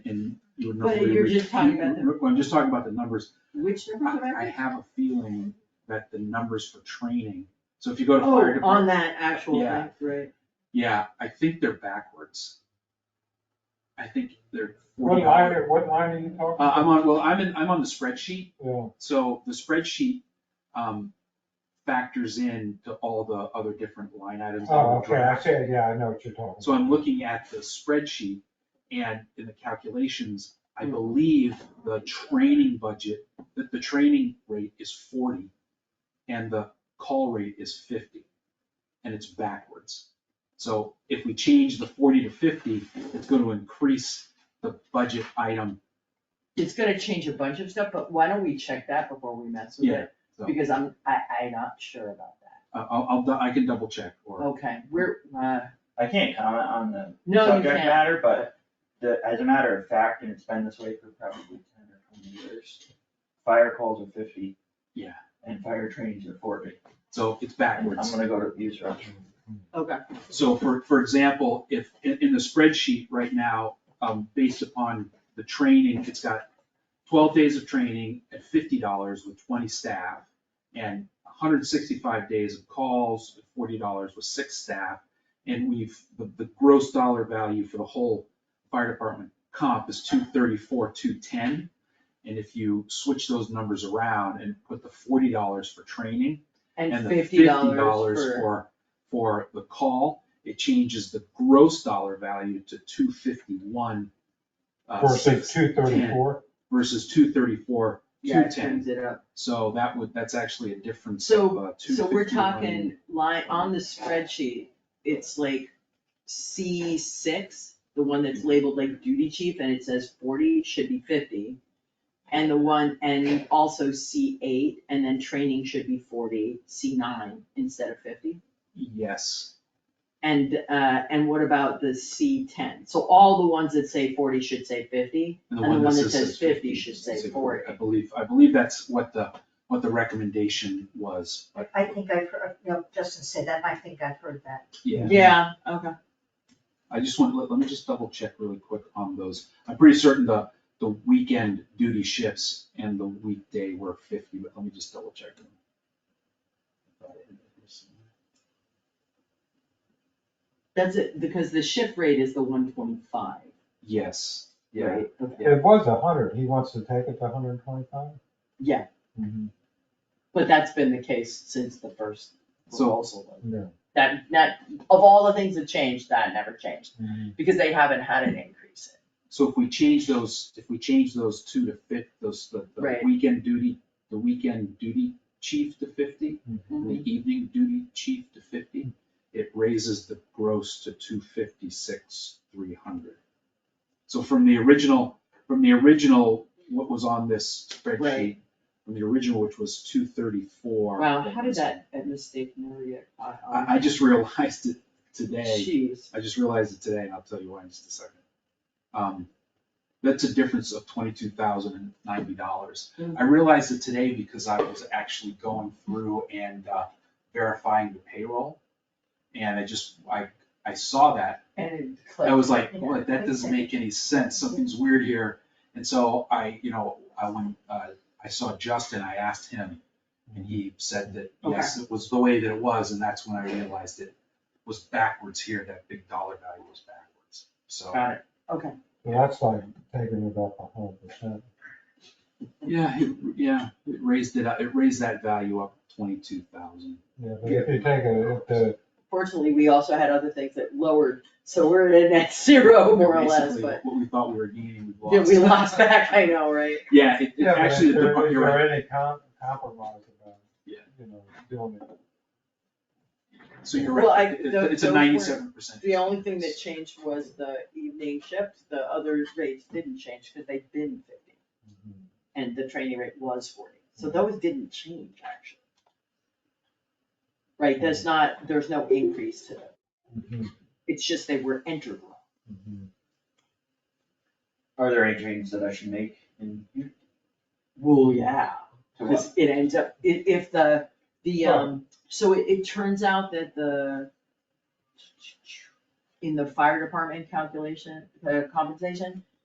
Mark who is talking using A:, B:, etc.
A: But
B: we
A: you're
B: were-
A: just talking about the-
B: Well, I'm just talking about the numbers.
A: Which department?
B: I have a feeling that the numbers for training, so if you go to fire
A: Oh, on
B: department,
A: that actual
B: Yeah.
A: thing, right.
B: yeah, I think they're backwards. I think they're
C: What
B: forty
C: line,
B: dollars.
C: are- what line are you talking?
B: Uh, I'm on, well, I'm in, I'm on the spreadsheet,
C: Yeah,
B: So the spreadsheet, um, factors in to all the other different line items. that
C: oh,
B: were
C: okay, I
B: drafted.
C: see, yeah, I know what you're talking.
B: So I'm looking at the spreadsheet and in the calculations, I believe the training budget, that the training rate is forty and the call rate is fifty, and it's backwards. So if we change the forty to fifty, it's going to increase the budget item,
A: It's gonna change a bunch of stuff, but why don't we check that before we mess with
B: Yeah,
A: it?
B: so-
A: Because I'm, I, I'm not sure about that.
B: I- Uh, I'll, I'll, I can double check or.
A: Okay, we're, uh,
D: I can't comment on the
A: No, you
D: subject
A: can't.
D: matter, but the, as a matter of fact, and it's been this way for probably ten or twenty years, fire calls are fifty.
B: Yeah.
D: And fire trainings are forty.
B: So it's
D: And
B: backwards.
D: I'm gonna go to abuse restroom.
A: okay,
B: So for, for example, if, in, in the spreadsheet right now, um, based upon the training, it's got twelve days of training at fifty dollars with twenty staff and hundred and sixty-five days of calls at forty dollars with six staff. And we've, the, the gross dollar value for the whole fire department comp is two thirty-four, two ten. And if you switch those numbers around and put the forty dollars for training
A: and
B: the
A: fifty dollars
B: $50
A: for,
B: For, for the call, it changes the gross dollar value to two fifty-one. uh,
C: Versus two thirty-four,
B: Versus two thirty-four,
A: yeah,
B: two
A: it turns
B: ten,
A: it up.
B: so that would, that's actually a difference of, uh,
A: So,
B: two fifty-one.
A: so we're talking line, on the spreadsheet, it's like C six, the one that's labeled like duty chief and it says forty, should be fifty. And the one, and also C eight, and then training should be forty, C nine instead of fifty.
B: Yes,
A: And, uh, and what about the C ten? So all the ones that say forty should say fifty,
B: and the one that says.
A: says fifty should say forty.
B: I believe, I believe that's what the, what the recommendation was, but,
E: I think I've heard, no, Justin said that, I think I've heard that.
B: yeah.
A: Yeah, okay.
B: I just want, let, let me just double check really quick on those. I'm pretty certain the, the weekend duty shifts and the weekday were fifty, but let me just double check them.
A: That's it, because the shift rate is the one twenty-five,
B: Yes, yeah,
A: right? Okay.
C: it was a hundred, he wants to take it to hundred and twenty-five?
A: Yeah. But that's been the case since the first
B: So-
A: proposal.
C: Yeah.
A: That, that, of all the things that changed, that never changed,
B: Mm-hmm.
A: because they haven't had an increase.
B: so if we change those, if we change those two to fit, those, the, the
A: Right.
B: weekend duty, the weekend duty chief to fifty, and the evening duty chief to fifty, it raises the gross to two fifty-six, three hundred. So from the original, from the original, what was on this spreadsheet,
A: Right.
B: from the original, which was two thirty-four.
A: Wow, how did that that mistake never get caught on?
B: I, I just realized it today.
A: Jeez.
B: I just realized it today, and I'll tell you why in just a second. Um, that's a difference of twenty-two thousand and ninety dollars. I realized it today because I was actually going through and uh, verifying the payroll. And I just, I, I saw that,
A: And it
B: I
A: clicked.
B: was like, boy, that doesn't make any sense, something's weird here. And so I, you know, I went, uh, I saw Justin, I asked him, and he said that, yes, it was the way that it was, and that's when I realized it was backwards here, that big dollar value was backwards, so.
A: Got it, okay.
C: So that's like taking it up a hundred percent.
B: Yeah, it, yeah, it raised it, up- it raised that value up twenty-two thousand.
C: Yeah, but if you take it, at the,
A: Fortunately, we also had other things that lowered, so we're at a net zero more or less,
B: Basically,
A: but
B: What we thought we were gaining, we
A: yeah,
B: lost.
A: we lost back, I know, right?
B: Yeah, it, it
C: yeah, but
B: actually,
C: if
B: the
C: there,
B: depart-
C: is
B: you're right.
C: there any com- compromise about,
B: Yeah.
C: you know, doing it?
B: so you're
A: Well, I-
B: right, It- it- it's a
A: those weren't-
B: ninety-seven percent.
A: The only thing that changed was the evening shift, the other rates didn't change, because they've been fifty, and the training rate was forty, so those didn't change, actually. Right, there's not, there's no increase to them,
C: Mhm,
A: it's just they were entered wrong.
C: mhm.
D: Are there any trainings that I should make in here?
A: Well, yeah.
D: To what?
A: Because it ends up, i- if the, the, um, so it, it turns out that the, in the fire department calculation, the uh, compensation,